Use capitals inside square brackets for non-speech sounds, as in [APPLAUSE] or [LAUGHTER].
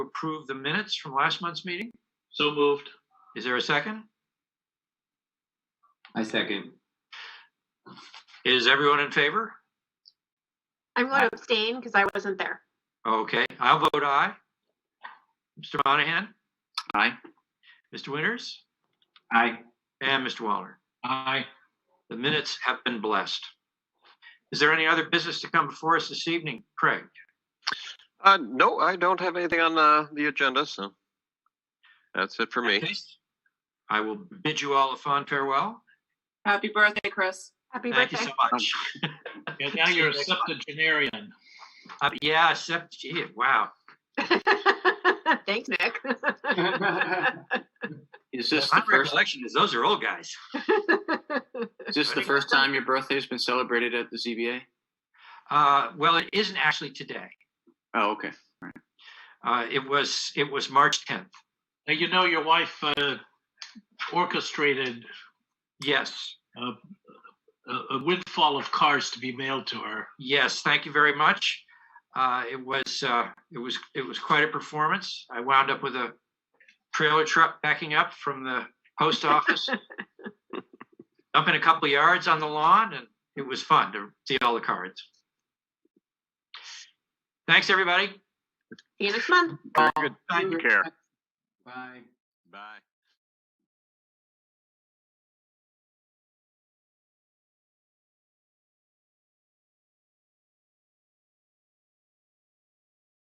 approve the minutes from last month's meeting? So moved. Is there a second? I second. Is everyone in favor? I'm going to abstain because I wasn't there. Okay, I'll vote aye. Mr. Monahan, Aye. Mr. Winters, Aye. and Mr. Waller. Aye. The minutes have been blessed. Is there any other business to come before us this evening, Craig? Uh, no, I don't have anything on uh, the agenda, so that's it for me. I will bid you all a fond farewell. Happy birthday, Chris. Happy Thank you birthday. so much. And now you're a septuagenarian. Uh, Yeah, except, gee, wow. [LAUGHS] Thanks, [LAUGHS] Nick. [LAUGHS] Is this My the first, recollection is those are old guys. is this the first time your birthday's been celebrated at the ZBA? Uh, Well, it isn't actually today. Oh, okay. Uh, It was, it was March 10th. Now, you know, your wife uh, orchestrated Yes, a a windfall of cars to be mailed to her. yes, thank you very much. Uh, It was, uh, it was, it was quite a performance. I wound up with a trailer truck backing up from the post [LAUGHS] office. Dumping a couple yards on the lawn and it was fun to see all the cards. Thanks, everybody. See you next month. Very good. Thank Take care. Bye. Bye.